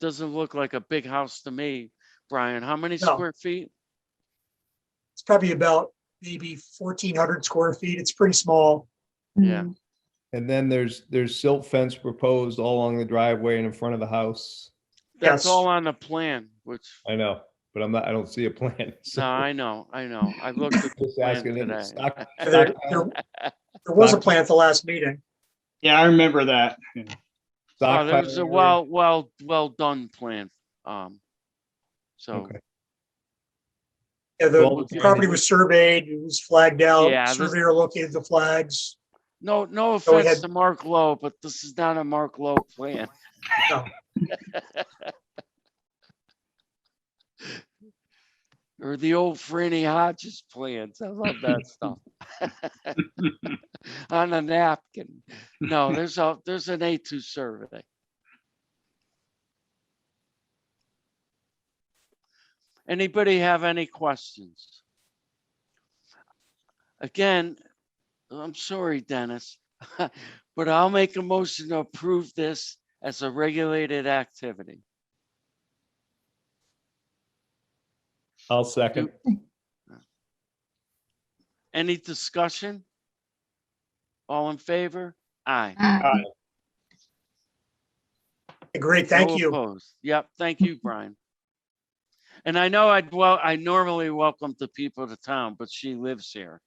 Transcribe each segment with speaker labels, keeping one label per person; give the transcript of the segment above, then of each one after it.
Speaker 1: doesn't look like a big house to me. Brian, how many
Speaker 2: No.
Speaker 1: square feet?
Speaker 2: It's probably about maybe fourteen hundred square feet. It's pretty small.
Speaker 1: Yeah.
Speaker 3: Mm.
Speaker 4: And then there's, there's silt fence proposed all along the driveway and in front of the house.
Speaker 1: That's
Speaker 2: Yes.
Speaker 1: all on the plan, which,
Speaker 4: I know, but I'm not, I don't see a plan. So
Speaker 1: no, I know, I know. I looked at the
Speaker 4: Just
Speaker 1: plan
Speaker 4: asking if it's
Speaker 1: today.
Speaker 4: stock-
Speaker 2: There, there- there was a plan at the last meeting.
Speaker 5: Yeah, I remember that.
Speaker 1: Oh, There was a
Speaker 4: stockpiling
Speaker 1: well, well, well done plan. Um, so,
Speaker 4: Okay.
Speaker 2: Yeah,
Speaker 4: Well,
Speaker 2: the
Speaker 4: okay.
Speaker 2: property was surveyed, it was flagged
Speaker 1: Yeah,
Speaker 2: out,
Speaker 1: this-
Speaker 2: surveyor located the flags.
Speaker 1: no, no
Speaker 2: So we
Speaker 1: offense
Speaker 2: had-
Speaker 1: to Mark Lowe, but this is not a Mark Lowe plan.
Speaker 2: No.
Speaker 1: Or the old Franny Hodges plans. I love that stuff. On a napkin. No, there's a, there's an A2 survey. Anybody have any questions? Again, I'm sorry, Dennis, but I'll make a motion to approve this as a regulated activity.
Speaker 4: I'll second.
Speaker 1: Any discussion? All in favor? Aye.
Speaker 3: Uh,
Speaker 2: Great, thank
Speaker 1: No
Speaker 2: you.
Speaker 1: opposed. Yep, thank you, Brian. And I know I'd, well, I normally welcome the people to town, but she lives here.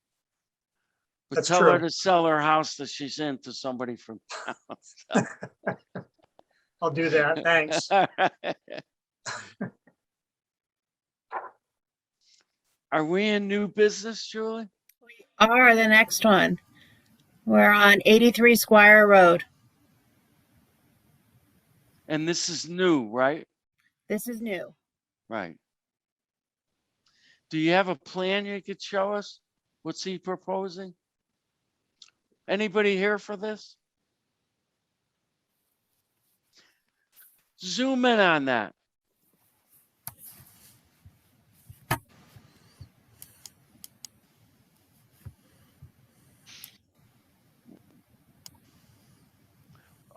Speaker 1: But
Speaker 2: That's
Speaker 1: tell her
Speaker 2: true.
Speaker 1: to sell her house that she's in to somebody from
Speaker 2: I'll do that. Thanks.
Speaker 1: Are we in new business, Julie?
Speaker 6: are the next one. We're on 83 Squire Road.
Speaker 1: And this is new, right?
Speaker 6: This is new.
Speaker 1: Right. Do you have a plan you could show us? What's he proposing? Anybody here for this? Zoom in on that.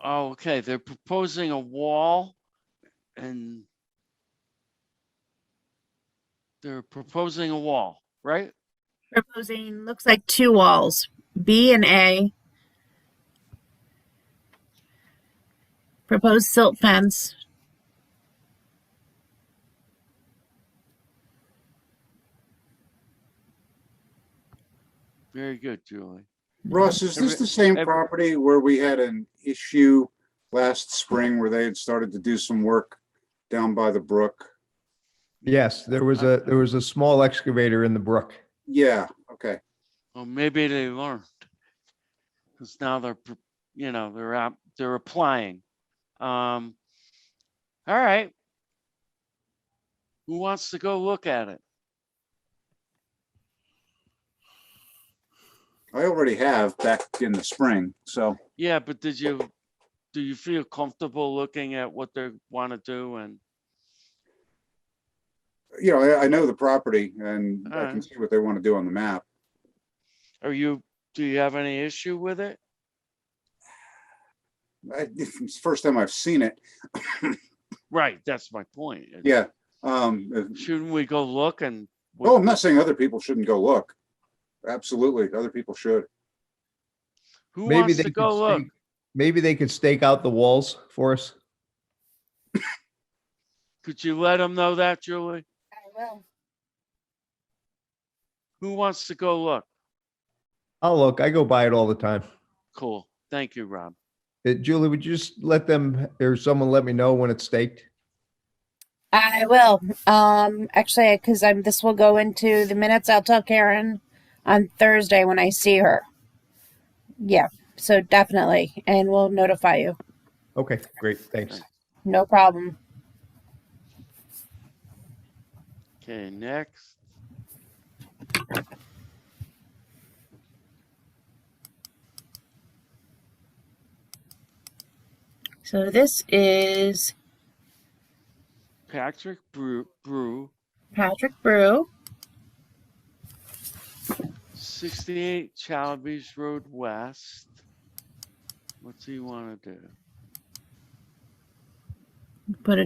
Speaker 1: Oh, okay, they're proposing a wall and they're proposing a wall, right?
Speaker 6: Proposing looks like two walls, B and A. Proposed silt fence.
Speaker 1: Very good, Julie.
Speaker 7: Ross, is this
Speaker 1: Every-
Speaker 7: the same
Speaker 1: every-
Speaker 7: property where we had an issue last spring where they had started to do some work down by the brook?
Speaker 4: Yes, there was a, there was a small excavator in the brook.
Speaker 7: Yeah, okay.
Speaker 1: Well, maybe they learned. Cause now they're, pr- you know, they're out, they're applying. Um, all right. Who wants to go look at it?
Speaker 7: I already have back in the spring, so
Speaker 1: Yeah, but did you, do you feel comfortable looking at what they want to do and,
Speaker 7: you know, I, I know the property and I can
Speaker 1: Alright.
Speaker 7: see what they want to do on the map.
Speaker 1: are you, do you have any issue with it?
Speaker 7: I, it's the first time I've seen it.
Speaker 1: Right, that's my point. is
Speaker 7: Yeah. Um, uh,
Speaker 1: Shouldn't we go look and? what-
Speaker 7: oh, I'm not saying other people shouldn't go look. Absolutely, other people should.
Speaker 1: Who
Speaker 4: Maybe
Speaker 1: wants
Speaker 4: they
Speaker 1: to
Speaker 4: could
Speaker 1: go look?
Speaker 4: stake- Maybe they could stake out the walls for us.
Speaker 1: Could you let them know that, Julie?
Speaker 6: I will.
Speaker 1: Who wants to go look?
Speaker 4: I'll Oh, look, I go by it all the time.
Speaker 1: Cool. Thank you, Rob.
Speaker 4: Uh, Julie, would you just let them, or someone let me know when it's staked?
Speaker 6: I will. Um, actually, because I'm this will go into the minutes. I'll tell Karen on Thursday when I see her. Yeah, so definitely, and we'll notify you.
Speaker 4: Okay, great, thanks.
Speaker 6: No problem.
Speaker 1: Okay, next.
Speaker 6: So this is
Speaker 1: Patrick Brew, Brew,
Speaker 6: Patrick Brew.
Speaker 1: sixty-eight Chalabes Road West. What's he wanna do?
Speaker 6: Put a